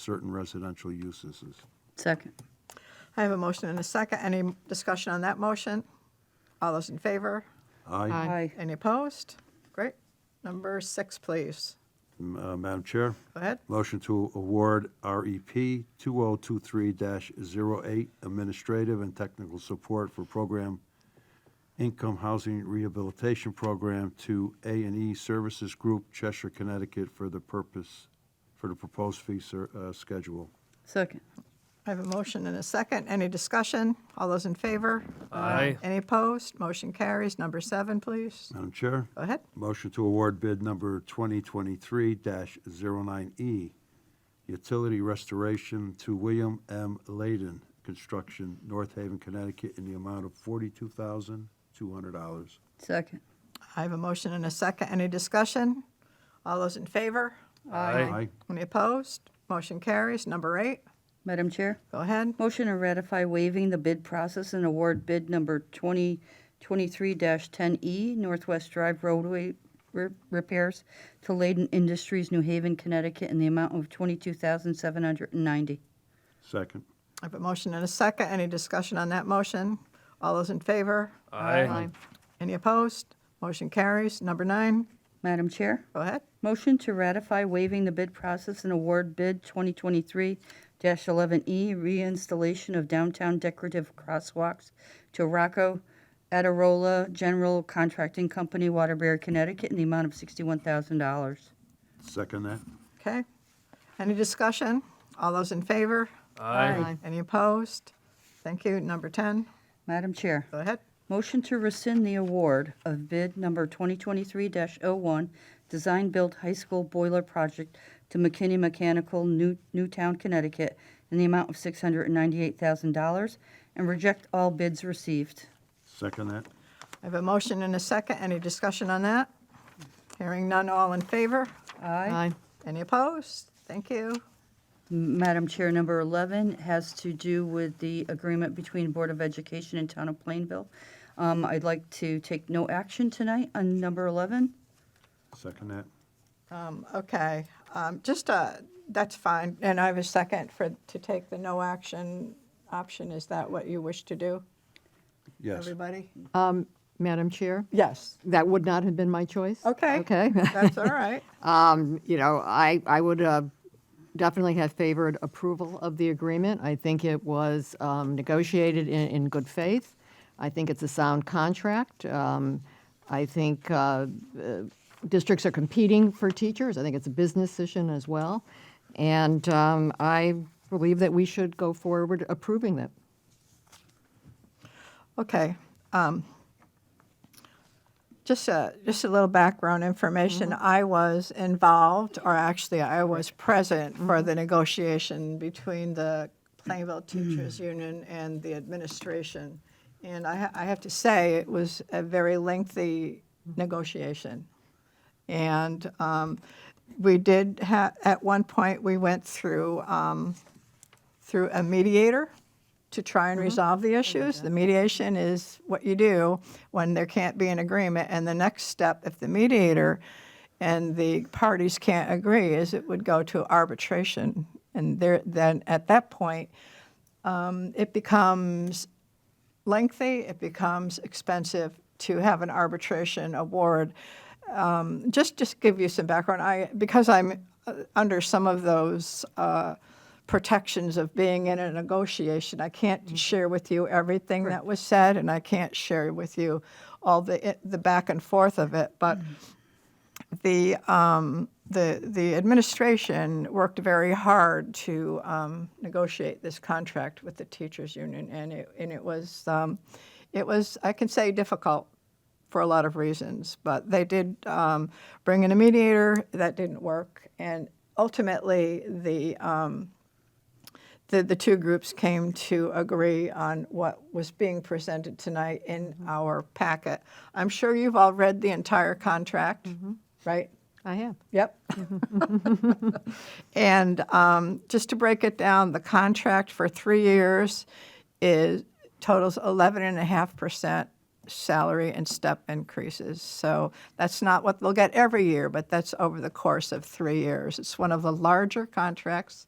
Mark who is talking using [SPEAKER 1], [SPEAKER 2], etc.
[SPEAKER 1] certain residential uses.
[SPEAKER 2] Second.
[SPEAKER 3] I have a motion and a second. Any discussion on that motion? All those in favor?
[SPEAKER 1] Aye.
[SPEAKER 2] Aye.
[SPEAKER 3] Any opposed? Great. Number six, please.
[SPEAKER 1] M- uh, Madam Chair,
[SPEAKER 3] Go ahead.
[SPEAKER 1] motion to award E REP 2023-08 Administrative and Technical Support for Program Income Housing Rehabilitation Program to a and E Services Group, Cheshire, Connecticut, for the purpose, for the proposed fee ser- uh, schedule.
[SPEAKER 2] Second.
[SPEAKER 3] I have a motion and a second. Any discussion? All those in favor?
[SPEAKER 4] Aye.
[SPEAKER 3] Any opposed? Motion carries. Number seven, please.
[SPEAKER 1] Madam Chair?
[SPEAKER 3] Go ahead.
[SPEAKER 1] Motion to award bid number 2023-09E, E, utility restoration to William M. Layden Construction, North Haven, Connecticut, in the amount of $42,200.
[SPEAKER 2] Second.
[SPEAKER 3] I have a motion and a second. Any discussion? All those in favor?
[SPEAKER 1] Aye.
[SPEAKER 3] Any opposed? Motion carries. Number eight,
[SPEAKER 2] Madam Chair,
[SPEAKER 3] go ahead.
[SPEAKER 2] motion to ratify waiving the bid process and award bid number 2023-10E E, Northwest Drive roadway re- repairs to Layden Industries, New Haven, Connecticut, in the amount of 22790
[SPEAKER 1] Second.
[SPEAKER 3] I have a motion and a second. Any discussion on that motion? All those in favor?
[SPEAKER 4] Aye.
[SPEAKER 3] Any opposed? Motion carries. Number nine,
[SPEAKER 2] Madam Chair,
[SPEAKER 3] go ahead.
[SPEAKER 2] motion to ratify waiving the bid process and award bid 2023-11E E, reinstallation of downtown decorative crosswalks to Rocco Adirola General Contracting Company, Waterbury, Connecticut, in the amount of $61,000.
[SPEAKER 1] Second that.
[SPEAKER 3] Okay. Any discussion? All those in favor?
[SPEAKER 4] Aye.
[SPEAKER 3] Any opposed? Thank you. Number 10,
[SPEAKER 2] Madam Chair,
[SPEAKER 3] go ahead.
[SPEAKER 2] motion to rescind the award of bid number 2023-01, Design Build High School Boiler Project to McKinney Mechanical, New Newtown, Connecticut, in the amount of $698,000, and reject all bids received.
[SPEAKER 1] Second that.
[SPEAKER 3] I have a motion and a second. Any discussion on that? Hearing none, all in favor?
[SPEAKER 2] Aye.
[SPEAKER 3] Any opposed? Thank you.
[SPEAKER 2] Madam Chair, number 11 has to do with the agreement between Board of Education and Town of Plainville. Um, I'd like to take no action tonight on number 11.
[SPEAKER 1] Second that.
[SPEAKER 3] Um, Okay, um, just, uh, that's fine. And I have a second for, to take the no action option. Is that what you wish to do,
[SPEAKER 1] Yes.
[SPEAKER 3] everybody?
[SPEAKER 5] Um, Madam Chair,
[SPEAKER 3] Yes.
[SPEAKER 5] that would not have been my choice.
[SPEAKER 3] Okay.
[SPEAKER 5] Okay.
[SPEAKER 3] That's all right.
[SPEAKER 5] Um, You know, I, I would uh, definitely have favored approval of the agreement. I think it was um, negotiated in, in good faith. I think it's a sound contract. Um, I think uh, uh, districts are competing for teachers. I think it's a business decision as well. And um, I believe that we should go forward approving that.
[SPEAKER 3] Okay. um, Just a, just a little background information. I was involved, or actually, I was present for the negotiation between the Plainville Teachers Union and the administration. And I, ha- I have to say, it was a very lengthy negotiation. And um, we did have, at one point, we went through, um, through a mediator to try and resolve the issues. The mediation is what you do when there can't be an agreement. And the next step, if the mediator and the parties can't agree, is it would go to arbitration. And there, then at that point, um, it becomes lengthy, it becomes expensive to have an arbitration award. Um, just just give you some background. I because I'm uh, under some of those uh, protections of being in a negotiation. I can't share with you everything that was said, and I can't share with you all the it, the back and forth of it. But the um, the the administration worked very hard to um, negotiate this contract with the teachers union, and it and it was um, it was I can say difficult for a lot of reasons, but they did um, bring in a mediator that didn't work, and ultimately the um, the, the two groups came to agree on what was being presented tonight in our packet. I'm sure you've all read the entire contract, right?
[SPEAKER 5] I have.
[SPEAKER 3] Yep. And um, just to break it down, the contract for three years is, totals 11.5% salary and step increases. So that's not what they'll get every year, but that's over the course of three years. It's one of the larger contracts